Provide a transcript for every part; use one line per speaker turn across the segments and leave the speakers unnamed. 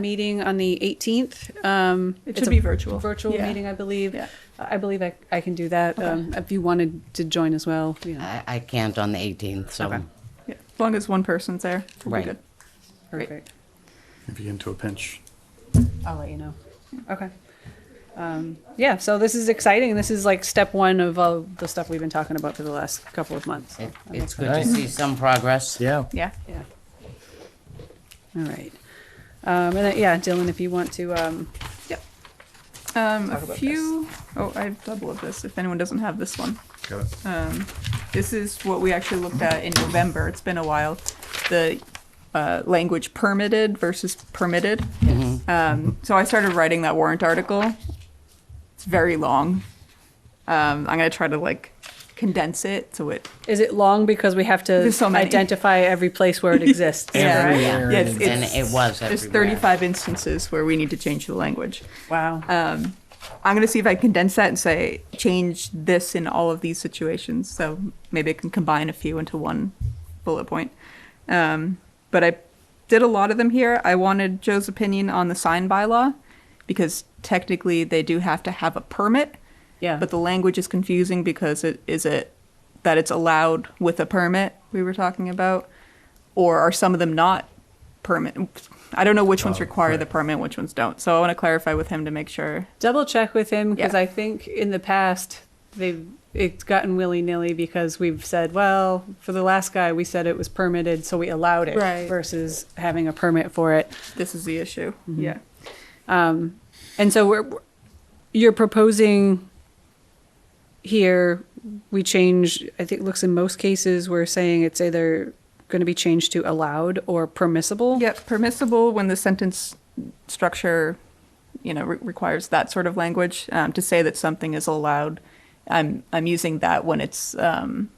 meeting on the 18th. Um,
It
it's
should
a
be virtual.
Virtual
Yeah.
meeting, I believe.
Yeah.
I believe I, I can do that. Um, if you wanted to join as well, you
Uh,
know,
I, I can't on the 18th,
Okay.
so.
Yeah, as long as one person's there, we'll
Right.
be good. Great.
perfect.
If you get into a pinch.
I'll let you know. Okay. Um, yeah, so this is exciting. This is like step one of all the stuff we've been talking about for the last couple of months.
It,
I'm
it's good to
Alright.
see some progress.
Yeah.
Yeah.
Yeah. All right. Um, and then, yeah, Dylan, if you want to, um,
Um, a
Talk about
few. Oh, I have double of this. If anyone doesn't have this one,
Got it.
um, this is what we actually looked at in November. It's been a while. The uh, language permitted versus permitted.
Mm-hmm.
Um, so I started writing that warrant article. It's very long. Um, I'm gonna try to like condense it so it
is it long because we have to
There's so many.
identify every place where it exists? is that
Yeah.
right?
Yeah.
Yeah, it's-
And
it's-
it was
There's
everywhere.
35 instances where we need to change the language.
Wow.
I'm going to see if I can condense that and say change this in all of these situations. So maybe I can combine a few into one bullet point. Um, but I did a lot of them here. I wanted Joe's opinion on the sign bylaw because technically they do have to have a permit.
Yeah.
But the language is confusing because it is it that it's allowed with a permit we were talking about, or are some of them not permit? I don't know which ones require the permit, which ones don't. So I want to clarify with him to make sure
double check with him because
Yeah.
I think in the past they've it's gotten willy nilly because we've said, well, for the last guy we said it was permitted, so we allowed it
Right.
versus having a permit for it.
this is the issue. Yeah.
And so we're we're- you're proposing here we change. I think it looks in most cases we're saying it's either going to be changed to allowed or permissible.
Yep, permissible when the sentence structure, you know, re- requires that sort of language um, to say that something is allowed. I'm I'm using that when it's um,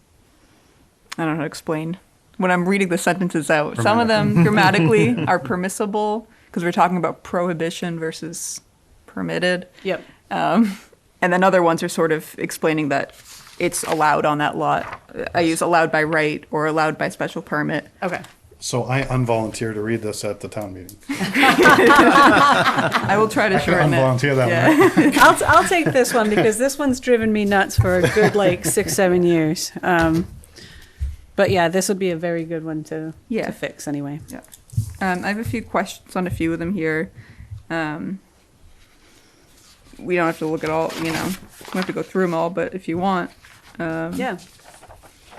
I don't know how to explain when I'm reading the sentences out. Some of them grammatically are permissible because we're talking about prohibition versus permitted.
Yep.
Um, and then other ones are sort of explaining that it's allowed on that lot. I use allowed by right or allowed by special permit.
Okay.
So I unvolunteer to read this at the town meeting.
I will try to
I can
shorten it.
unvolunteer that
Yeah.
one.
I'll, I'll take this one because this one's driven me nuts for a good like six seven years. Um, but yeah, this would be a very good one to
Yeah.
to fix anyway.
Yeah. Um, I have a few questions on a few of them here. Um, we don't have to look at all, you know, we have to go through them all, but if you want.
Yeah,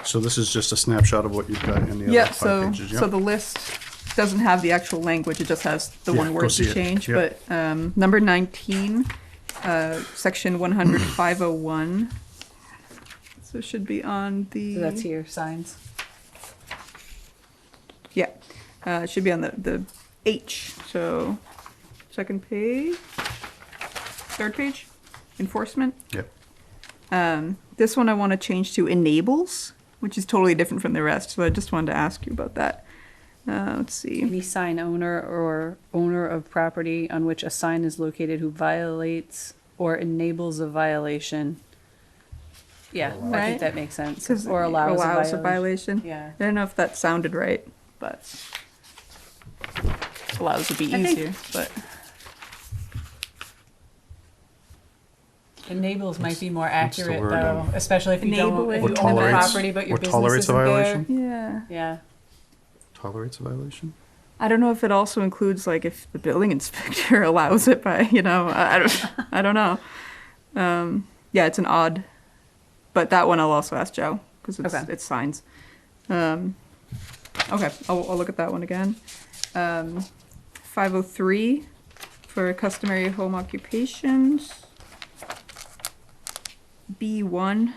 So this is just a snapshot of what you've got in the
Yeah,
other five
so,
pages.
so the list doesn't have the actual language, it just has the
Yeah,
one
go
word
see
to
it.
change,
Yep.
but, um, number nineteen, uh, section one hundred five oh one. So it should be on the.
so that's here signs.
Yeah, uh, it should be on the, the H, so second page, third page, enforcement.
Yep.
Um, this one I want to change to enables, which is totally different from the rest, so I just wanted to ask you about that. Uh, let's see.
Any sign owner or owner of property on which a sign is located who violates or enables a violation. Yeah, I
Right.
think that makes sense.
'Cause
Or allows,
allows
a,
a
violation.
violation.
Yeah.
I don't know if that sounded right, but allows would be
I think-
easier, but
Enables might be more
the
accurate
word
though,
on-
especially if you don't
Enable
if
it.
you
Or
own the
tolerates-
property but your
or
business
tolerates a
isn't there.
violation?
yeah.
Yeah.
Tolerates a violation?
I don't know if it also includes like if the building inspector allows it, but you know, I, I don't, I don't know. Um, yeah, it's an odd, but that one I'll also ask Joe because it's
Okay.
it's signs. Um, okay, I'll, I'll look at that one again. Um, Five oh three for customary home occupations. B one.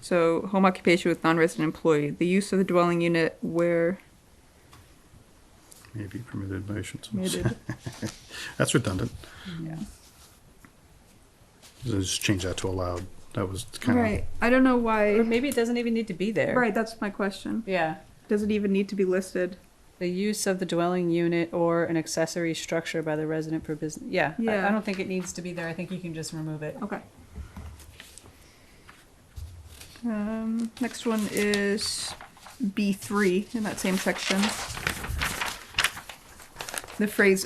So home occupation with non-resident employee. The use of the dwelling unit where
Maybe permitted violations.
Permitted.
That's redundant.
Yeah.
So Just change that to allowed. That was kind
Right. I don't know
Or
why.
maybe it doesn't even need to be there.
Right, that's my question.
Yeah.
Does it even need to be listed?
The use of the dwelling unit or an accessory structure by the resident for business. Yeah. I- I,
Yeah.
don't think it needs to be there. I think you can just remove it.
Okay. Um, next one is B3 in that same section. the phrase